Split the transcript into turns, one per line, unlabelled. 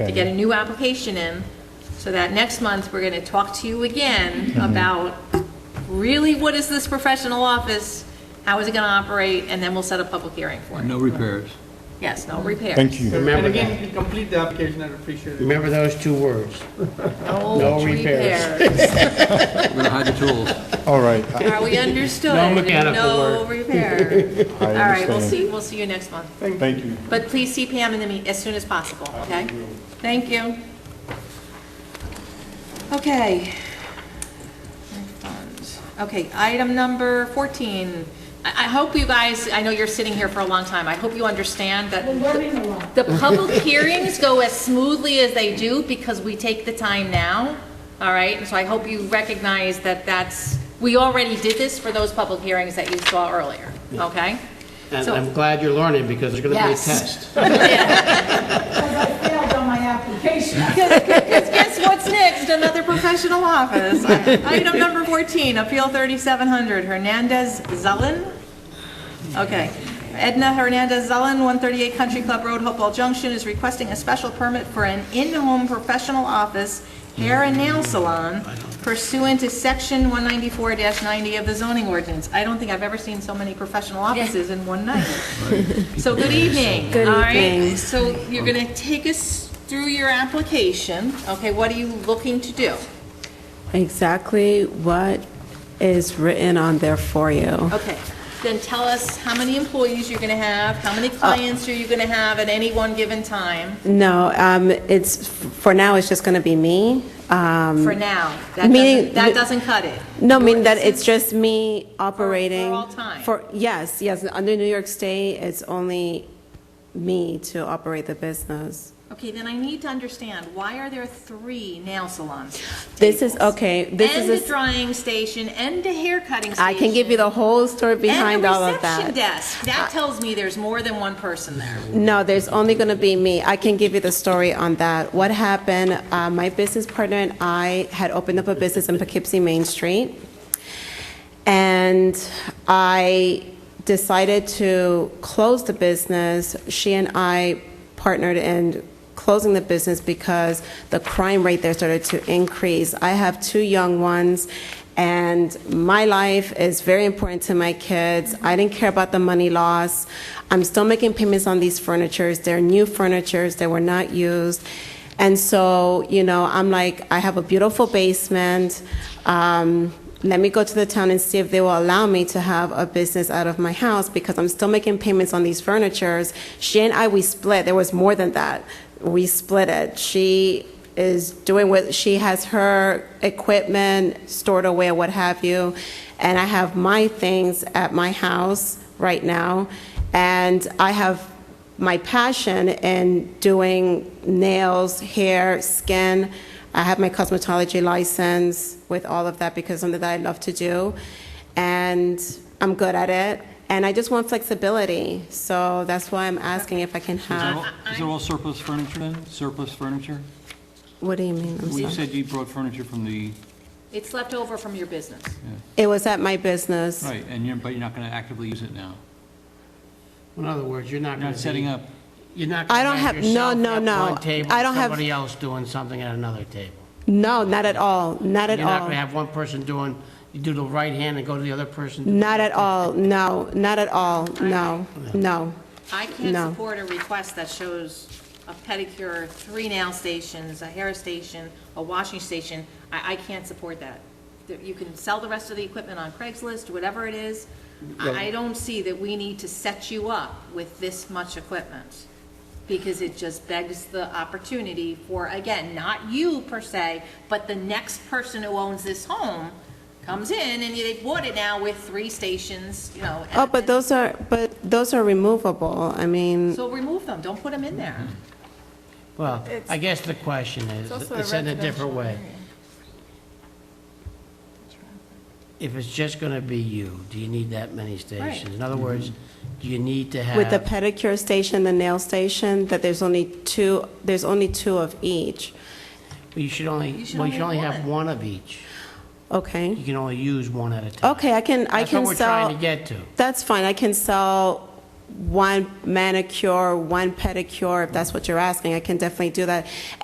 to get a new application in, so that next month, we're going to talk to you again
Mm-hmm.
about really what is this professional office, how is it going to operate, and then we'll set a public hearing for it.
No repairs.
Yes, no repairs.
Thank you.
And
Remember
again,
that.
if you complete the application, I'd appreciate it.
Remember those two words.
No
No repairs.
repairs.
We're going to hide the tools.
All right, I
Are we understood?
No mechanical
No repair.
I
All right, we'll
understand.
see, we'll see you next month.
Thank you.
But please see Pam in the meet, as soon as possible, okay? Thank you. Okay. Okay, item number 14. I, I hope you guys, I know you're sitting here for a long time, I hope you understand that the public hearings go as smoothly as they do because we take the time now, all right? And so I hope you recognize that that's, we already did this for those public hearings that you saw earlier, okay?
And
So-
I'm glad you're learning because there's going to be a
Yes.
test.
Because I failed on my application.
Because guess what's next? Another professional office. Item number 14, Appeal 3700, Hernandez Zelen. Okay. Edna Hernandez Zelen, 138 Country Club Road, Hopewell Junction, is requesting a special permit for an in-home professional office hair and nail salon pursuant to Section 194-90 of the zoning ordinance. I don't think I've ever seen so many professional offices in one night. So good evening. Good evening. So you're going to take us through your application. Okay, what are you looking to do?
exactly what is written on there for you.
Okay, then tell us how many employees you're going to have, how many clients are you going to have at any one given time
No, um, it's, for now, it's just going to be me. Um,
for now? That doesn't,
Meaning-
that doesn't cut it.
No, I mean that it's just me operating.
all time.
For, yes, yes, under New York State, it's only me to operate the business.
Okay, then I need to understand, why are there three nail salons?
This is,
tables?
okay, this
And
is,
a
a-
drying station and a hair cutting station.
I can give you the whole story behind all
And a
of
reception
that.
desk. That tells me there's more than one person there.
No, there's only going to be me. I can give you the story on that. What happened, uh, my business partner and I had opened up a business in Poughkeepsie Main Street. And I decided to close the business. She and I partnered in closing the business because the crime rate there started to increase. I have two young ones, and my life is very important to my kids. I didn't care about the money loss. I'm still making payments on these furnitures. They're new furnitures, they were not used. And so, you know, I'm like, I have a beautiful basement. Um, let me go to the town and see if they will allow me to have a business out of my house because I'm still making payments on these furnitures. She and I, we split. There was more than that. We split it. She is doing what she has her equipment stored away or what have you. And I have my things at my house right now. And I have my passion in doing nails, hair, skin. I have my cosmetology license with all of that because it's something that I love to do, and I'm good at it. And I just want flexibility, so that's why I'm asking if I can
Is there
have.
all- is there all surplus furniture then? Surplus furniture?
What do you mean? I'm
Well, you
sorry.
said you brought furniture from the,
It's left over from your business.
It was at my business.
right, and you're, but you're not going to actively use it now.
In other words, you're not
You're
going to
not
be...
setting up,
You're not
I
going to
don't
have
have- no,
yourself
no,
at
no.
one table,
I don't have-
somebody else doing something at another table.
No, not at all. Not at
You're
all.
not going to have one person doing, you do the right hand and go to the other person.
Not at all. No, not at all. No, no.
I can't
No.
support a request that shows a pedicure, three nail stations, a hair station, a washing station. I, I can't support that. That You can sell the rest of the equipment on Craigslist, whatever it is. I I don't see that we need to set you up with this much equipment, because it just begs the opportunity for, again, not you per se, but the next person who owns this home comes in and they bought it now with three stations, you know.
Oh,
and-
but those are but those are removable. I mean.
so remove them, don't put them in there.
Well, I guess the question is, it's said in a different way. If it's just going to be you, do you need that many stations? In other words,
Mm-hmm.
do you need to have...
With the pedicure station, the nail station, that there's only two, there's only two of each,
You should only,
should
well, you should
only
only
have
have one of each.
okay?
You can only use one at a time.
Okay, I can, I
That's what
can
we're
sell.
trying to get to.
That's fine, I can sell one manicure, one pedicure, if that's what you're asking, I can definitely do that.